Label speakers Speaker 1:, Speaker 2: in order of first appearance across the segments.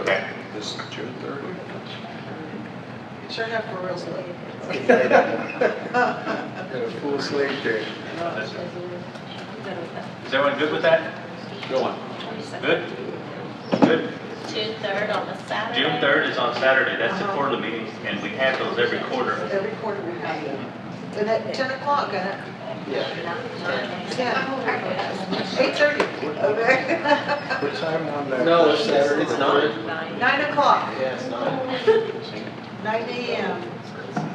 Speaker 1: Okay.
Speaker 2: This is June thirtieth.
Speaker 3: Sure have four wheels late.
Speaker 2: Got a full slate there.
Speaker 1: Is everyone good with that?
Speaker 2: Go on.
Speaker 1: Good? Good.
Speaker 4: June third on a Saturday.
Speaker 1: June third is on Saturday, that's the
Speaker 3: Uh-huh.
Speaker 1: quarterly meetings, and we have those every quarter.
Speaker 3: Every quarter we have it. And at 10 o'clock, and at
Speaker 4: Yeah.
Speaker 3: 8:30, okay?
Speaker 2: What time on that?
Speaker 5: No, it's, it's nine.
Speaker 3: 9 o'clock,
Speaker 5: Yeah, it's nine.
Speaker 3: 9 AM.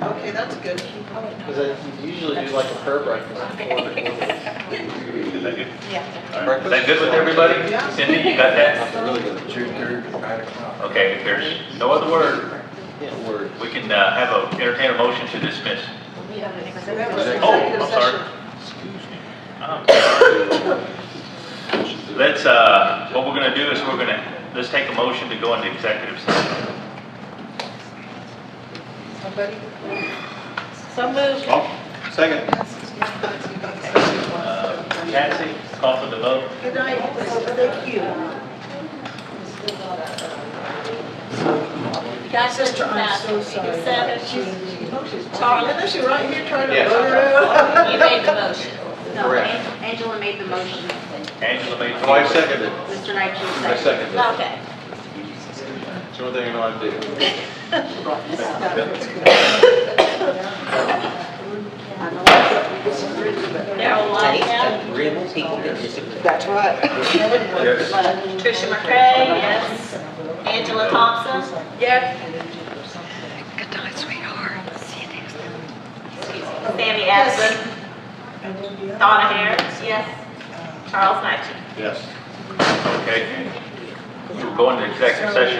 Speaker 3: Okay, that's good.
Speaker 5: Because I usually do like a prayer breakfast before the
Speaker 1: Is that good?
Speaker 4: Yeah.
Speaker 1: All right. Is that good with everybody?
Speaker 3: Yeah.
Speaker 1: Cindy, you got that?
Speaker 2: June thirtieth, nine o'clock.
Speaker 1: Okay, if there's no other word,
Speaker 5: Yeah, word.
Speaker 1: we can uh, have a, entertain a motion to dismiss.
Speaker 4: We have an executive
Speaker 3: We have an
Speaker 4: session.
Speaker 1: Oh,
Speaker 3: executive
Speaker 1: I'm sorry.
Speaker 3: session.
Speaker 1: Excuse me. I'm sorry. Let's, uh, what we're gonna do is we're gonna, let's take a motion to go into executive session.
Speaker 3: Somebody?
Speaker 4: So moved.
Speaker 5: Oh, Second.
Speaker 1: Uh, Patsy, call for the vote.
Speaker 3: Good night, thank you.
Speaker 4: Guys, Sister, I'm so sorry. Seven,
Speaker 3: Charlie,
Speaker 4: Charlie.
Speaker 3: isn't she right here trying to
Speaker 5: Yes.
Speaker 3: vote her out?
Speaker 4: You made the motion.
Speaker 6: No,
Speaker 5: Correct.
Speaker 6: An- Angela made the motion.
Speaker 1: Angela made the
Speaker 5: I
Speaker 1: motion.
Speaker 5: seconded.
Speaker 6: Mr. Nigel
Speaker 5: I
Speaker 6: seconded.
Speaker 5: seconded.
Speaker 4: Okay.
Speaker 5: It's the only thing I know how to do.
Speaker 4: Darrell Whitehead.
Speaker 3: That's right.
Speaker 4: Tricia McCray, yes. Angela Thompson. Yes. Good night, sweetheart. Sammy Adams. Donna Harris, yes. Charles Knight.
Speaker 1: Yes. Okay. We'll go into executive session.